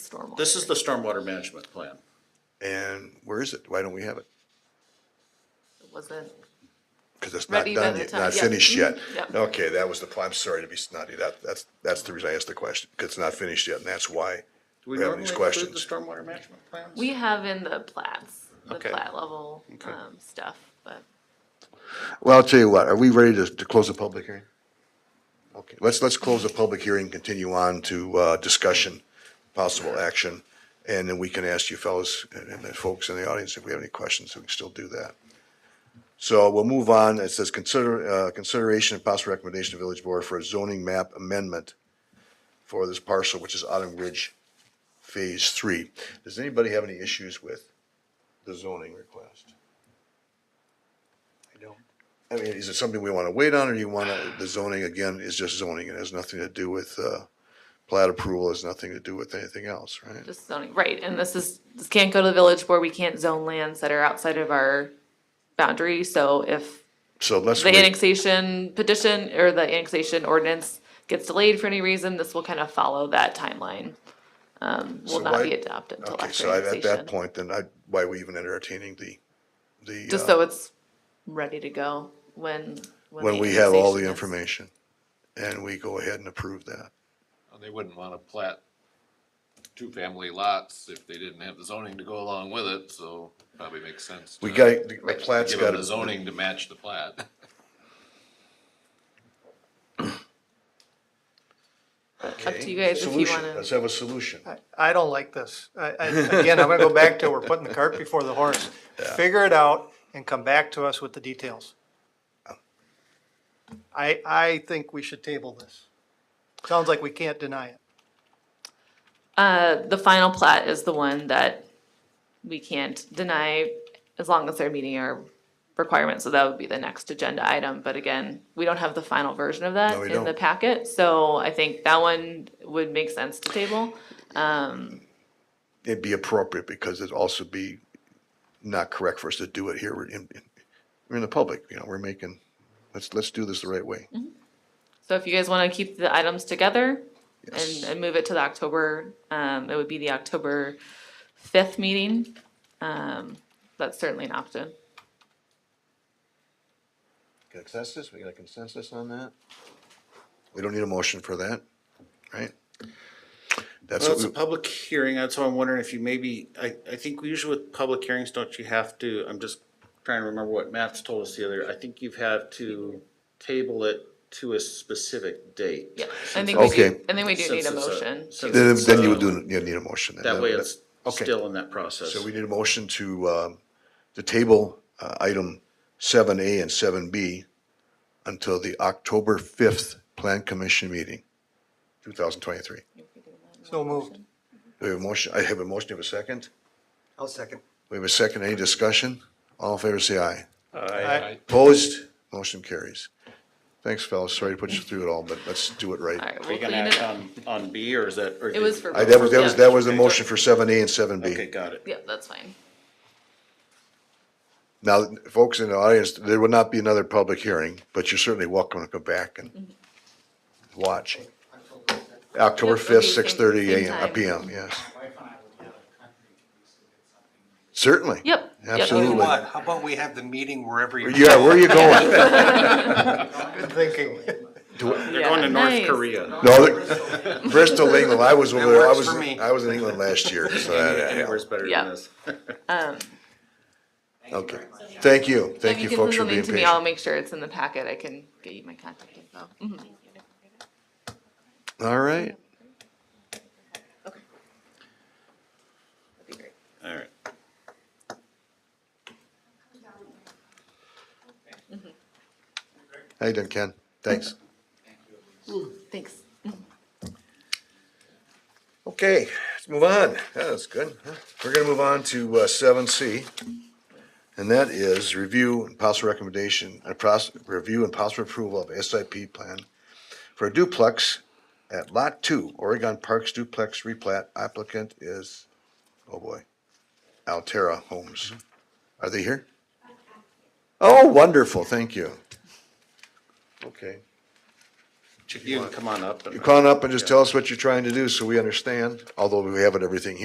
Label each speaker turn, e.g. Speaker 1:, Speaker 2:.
Speaker 1: stormwater.
Speaker 2: This is the stormwater management plan.
Speaker 3: And where is it? Why don't we have it?
Speaker 1: It Wasn't,
Speaker 3: Because it's not
Speaker 1: Ready by
Speaker 3: done
Speaker 1: the
Speaker 3: yet,
Speaker 1: time-
Speaker 3: not
Speaker 1: yeah.
Speaker 3: finished yet.
Speaker 1: Yep.
Speaker 3: Okay, that was the, pl- I'm sorry to be snotty. That, that's, that's the reason I asked the question, because it's not finished yet, and that's why
Speaker 2: Do we
Speaker 3: we're
Speaker 2: normally
Speaker 3: having these
Speaker 2: include the
Speaker 3: questions.
Speaker 2: stormwater management plans?
Speaker 1: we have in the plats, the
Speaker 2: Okay.
Speaker 1: plat level,
Speaker 2: Okay.
Speaker 1: um, stuff, but
Speaker 3: Well, I'll tell you what, are we ready to, to close the public hearing? Okay, let's, let's close the public hearing, continue on to, uh, discussion, possible action. And then we can ask you fellows and and the folks in the audience if we have any questions, we can still do that. So we'll move on. It says consider, uh, consideration and possible recommendation to village board for a zoning map amendment for this parcel, which is Autumn Ridge Phase Three. Does anybody have any issues with the zoning request? I mean, is it something we want to wait on, or do you want to, the zoning, again, is just zoning, it has nothing to do with, uh, plat approval, has nothing to do with anything else, right?
Speaker 1: just zoning, right, and this is, this can't go to the village board, we can't zone lands that are outside of our boundary, so if
Speaker 3: So let's
Speaker 1: the
Speaker 3: wait,
Speaker 1: annexation petition or the annexation ordinance gets delayed for any reason, this will kind of follow that timeline. Um,
Speaker 3: So
Speaker 1: will not be
Speaker 3: why-
Speaker 1: adopted until
Speaker 3: okay,
Speaker 1: after
Speaker 3: so I- at that
Speaker 1: annexation,
Speaker 3: point, then I, why are we even entertaining the, the,
Speaker 1: just
Speaker 3: uh,
Speaker 1: so it's ready to go when.
Speaker 3: when
Speaker 1: the
Speaker 3: we have all the
Speaker 1: annexation is-
Speaker 3: information, and we go ahead and approve that?
Speaker 4: They wouldn't wanna plat two-family lots if they didn't have the zoning to go along with it, so probably makes sense.
Speaker 3: We
Speaker 4: to
Speaker 3: got, the the plat's
Speaker 4: Give
Speaker 3: got
Speaker 4: them the
Speaker 3: to,
Speaker 4: zoning to match the plat.
Speaker 1: Up to you guys if you
Speaker 3: solution,
Speaker 1: wanna,
Speaker 3: let's have a solution.
Speaker 5: I don't like this. I, I, again, I'm gonna go back to, we're putting the cart before the horse. Figure it out and come back to us with the details. I, I think we should table this. Sounds like we can't deny it.
Speaker 1: uh, the final plat is the one that we can't deny as long as they're meeting our requirements, so that would be the next agenda item, but again, we don't have the final version of that
Speaker 3: No, we
Speaker 1: in the
Speaker 3: don't.
Speaker 1: packet, so I think that one would make sense to table.
Speaker 3: it'd be appropriate because it'd also be not correct for us to do it here. We're in, in- we're in the public, you know, we're making, let's, let's do this the right way.
Speaker 1: Mm-hmm. So if you guys want to keep the items together and,
Speaker 3: Yes.
Speaker 1: and move it to the October, um, it would be the October fifth meeting. Um, that's certainly an option.
Speaker 3: Consensus, we got a consensus on that? We don't need a motion for that, right? That's
Speaker 2: Well,
Speaker 3: what
Speaker 2: it's a
Speaker 3: we,
Speaker 2: public hearing, that's why I'm wondering if you maybe, I, I think usually with public hearings, don't you have to, I'm just trying to remember what Matt's told us the other, I think you've had to table it to a specific date.
Speaker 1: Yeah, I think we do,
Speaker 3: Okay.
Speaker 1: I think we do need
Speaker 2: Since
Speaker 1: a
Speaker 2: it's a-
Speaker 1: motion.
Speaker 2: since
Speaker 3: then,
Speaker 2: it's
Speaker 3: then you
Speaker 2: a-
Speaker 3: would do, you need a motion. then.
Speaker 2: That way it's
Speaker 3: Okay.
Speaker 2: still in that process.
Speaker 3: So we need a motion to, um, to table, uh, item seven A and seven B until the October fifth Plan Commission meeting, two thousand twenty-three.
Speaker 5: So moved.
Speaker 3: We have a motion, I have a motion, Do we have a second.
Speaker 5: I'll second.
Speaker 3: We have a second, any discussion? All in favor, say aye.
Speaker 5: I,
Speaker 3: Opposed, motion carries. Thanks, fellas, sorry to put you through it all, but let's do it
Speaker 1: All
Speaker 3: right.
Speaker 1: right,
Speaker 2: Are
Speaker 1: we'll
Speaker 2: you
Speaker 1: clean
Speaker 2: gonna
Speaker 1: it
Speaker 2: act
Speaker 1: up.
Speaker 2: on, on B or is that? or
Speaker 1: It
Speaker 2: did-
Speaker 1: was for.
Speaker 3: I, that was, that was, that was the
Speaker 1: Yeah.
Speaker 3: motion for seven A and seven
Speaker 2: Okay,
Speaker 3: B.
Speaker 2: got it.
Speaker 1: Yeah, that's fine.
Speaker 3: Now, folks in the audience, there will not be another public hearing, but you're certainly welcome to go back and watch. October
Speaker 1: Yep, it'll
Speaker 3: fifth,
Speaker 1: be same-
Speaker 3: six thirty
Speaker 1: same
Speaker 3: AM,
Speaker 1: time.
Speaker 3: P M, yes. Certainly.
Speaker 1: Yep. Yep.
Speaker 3: Absolutely.
Speaker 6: What, how about we have the meeting wherever you.
Speaker 3: Yeah, where are you going?
Speaker 5: good thinking.
Speaker 2: They're going to North
Speaker 1: Nice.
Speaker 2: Korea.
Speaker 3: No, the- Bristol, England. I was over there. I
Speaker 6: works
Speaker 3: was,
Speaker 6: for me.
Speaker 3: I was in England last year, so that,
Speaker 2: Anywhere's better
Speaker 1: Yeah.
Speaker 2: than this.
Speaker 3: yeah. okay. Thank you.
Speaker 1: So
Speaker 3: Thank
Speaker 1: if
Speaker 3: you
Speaker 1: can
Speaker 3: folks for
Speaker 1: send
Speaker 3: being
Speaker 1: something to me, I'll
Speaker 3: patient.
Speaker 1: make sure it's in the packet. I can get you my contact info. Mhm.
Speaker 3: All right.
Speaker 1: That'd be great.
Speaker 2: All right.
Speaker 3: How you doing, Ken? Thanks.
Speaker 1: Thanks.
Speaker 3: Okay, let's move on. Yeah, That's good. We're gonna move on to uh, seven C. And that is review and possible recommendation, and pros, review and possible approval of SIP plan for a duplex at Lot Two, Oregon Parks duplex replat. Applicant is, oh boy, Altera Homes. Are they here? Oh, wonderful, thank you. Okay.
Speaker 2: You can come on up. and-
Speaker 3: You come on up and just tell us what you're trying to do so we understand, although we haven't everything here.